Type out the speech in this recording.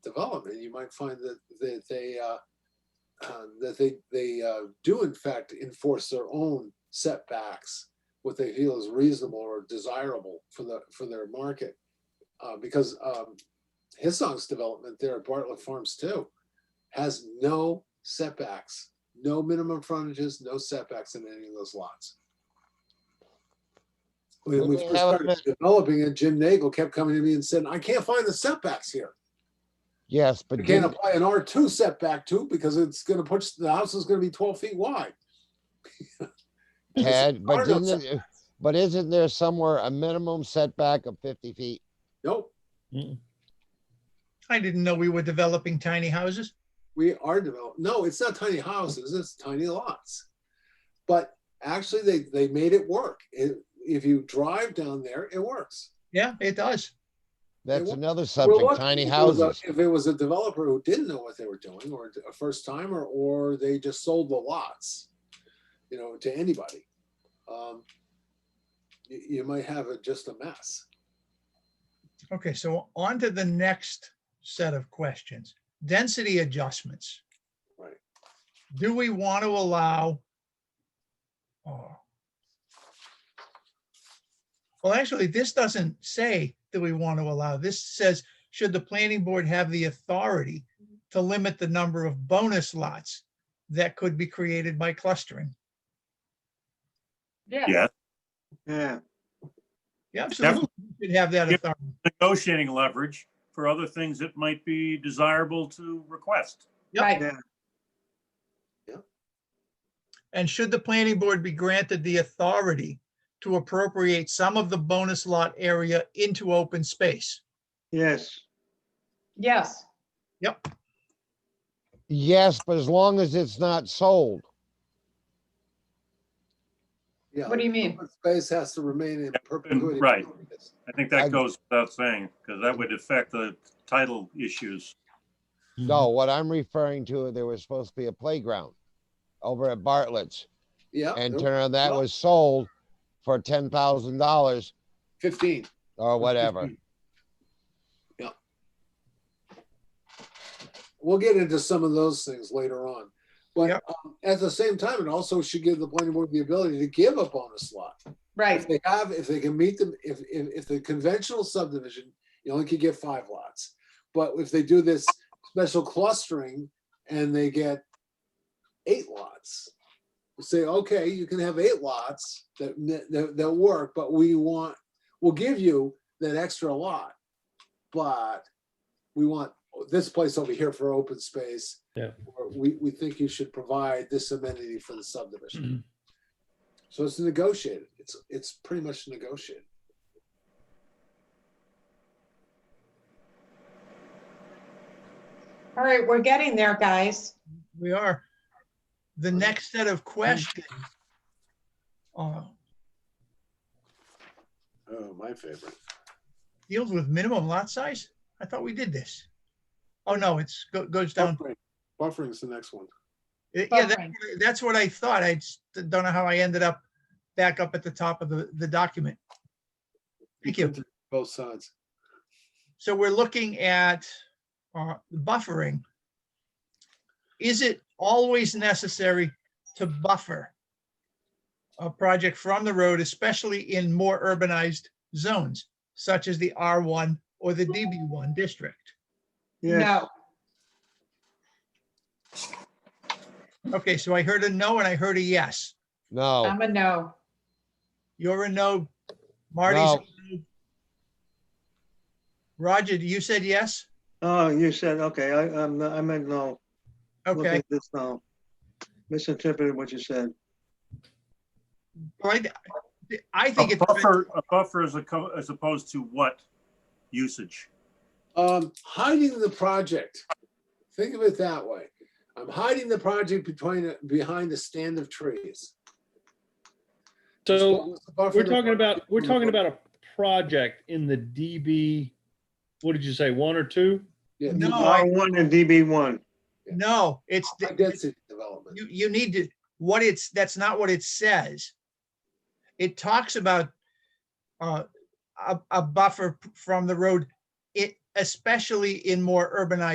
development, you might find that that they uh, uh, that they they uh, do in fact enforce their own setbacks, what they feel is reasonable or desirable for the for their market, uh, because um, Hisong's development there at Bartlett Farms too has no setbacks, no minimum frontages, no setbacks in any of those lots. When we Well, first how started about- developing and Jim Nagel kept coming to me and said, I can't find the setbacks here. Yes, You but can't didn't- apply an R two setback too, because it's gonna push, the house is gonna be twelve feet wide. It's Ted, but hard on didn't, setbacks. it- uh, but isn't there somewhere a minimum setback of fifty feet? Nope, I didn't know we were developing tiny houses. we are developed, no, it's not tiny houses, it's tiny lots. But actually, they, they made it work. It, if you drive down there, it works. Yeah, it does. That's wa- another We're subject, lucky tiny if it was a- houses. If it was a developer who didn't know what they were doing, or a first timer, or they just sold the lots, you know, to anybody, um, you, you might have a, just a mess. Okay, so on to the next set of questions. Density adjustments. Right. Do we want to allow? oh. Well, actually, this doesn't say that we want to allow. This says, should the planning board have the authority to limit the number of bonus lots that could be created by clustering? Yeah. Yes, Yeah, Yeah, absolutely. we Should have that Yep. authority. negotiating leverage for other things that might be desirable to request. Right. yeah, And should the planning board be granted the authority to appropriate some of the bonus lot area into open space? yes, Yes, Yes, but as long as it's not sold. Yeah, what do you mean? open Space has to remain in perpetuity. right. I think I- that goes without saying, because that would affect the title issues. No, what I'm referring to, there was supposed to be a playground over at Bartlett's. Yeah, And there- turn around, that well- was sold for ten thousand dollars fifteen. or whatever. Yeah. We'll get into some of those things later on. But Yep. um, at the same time, it also should give the planning board the ability to give a bonus lot. If right, they have, if they can meet them, if, if, if the conventional subdivision, you only could get five lots. But if they do this special clustering and they get eight lots, we say, okay, you can have eight lots that, that, that work, but we want, we'll give you that extra lot. But we want this place over here for open space. Yeah. Or we, we think you should provide this amenity for the subdivision. So it's negotiated. It's it's pretty much negotiated. all right, we're getting there, guys. We are. The next set of questions. uh, Oh, my favorite. Deals with minimum lot size? I thought we did this. Oh, no, it's, go- goes down. Buffering. Buffering's the next one. Yeah, that- Buffering. that's what I thought. I just don't know how I ended up back up at the top of the, the document. Thank you. Both sides. So we're looking at uh, buffering. Is it always necessary to buffer a project from the road, especially in more urbanized zones such as the R1 or the DB1 district? yeah, No, Okay, so I heard a no and I heard a yes. No, I'm a no. You're a no. Marty's. a no. Roger, you said yes? oh, you said, okay, I, I'm, I meant no. Look Okay. at This now, misinterpreted what you said. Well, I- I A think it's. buffer, a buffer as a, co- as opposed to what usage? Um, hiding the project. Think of it that way. I'm hiding the project between behind a stand of trees. It's So called the buffer we're to- talking about, we're talking about a project in the DB, what did you say, one or two? Yeah, No, I- R1 and DB1, No, it's. high Density development. you, you need to, what it's, that's not what it says. It talks about uh, a, a buffer from the road, it, especially in more urbanized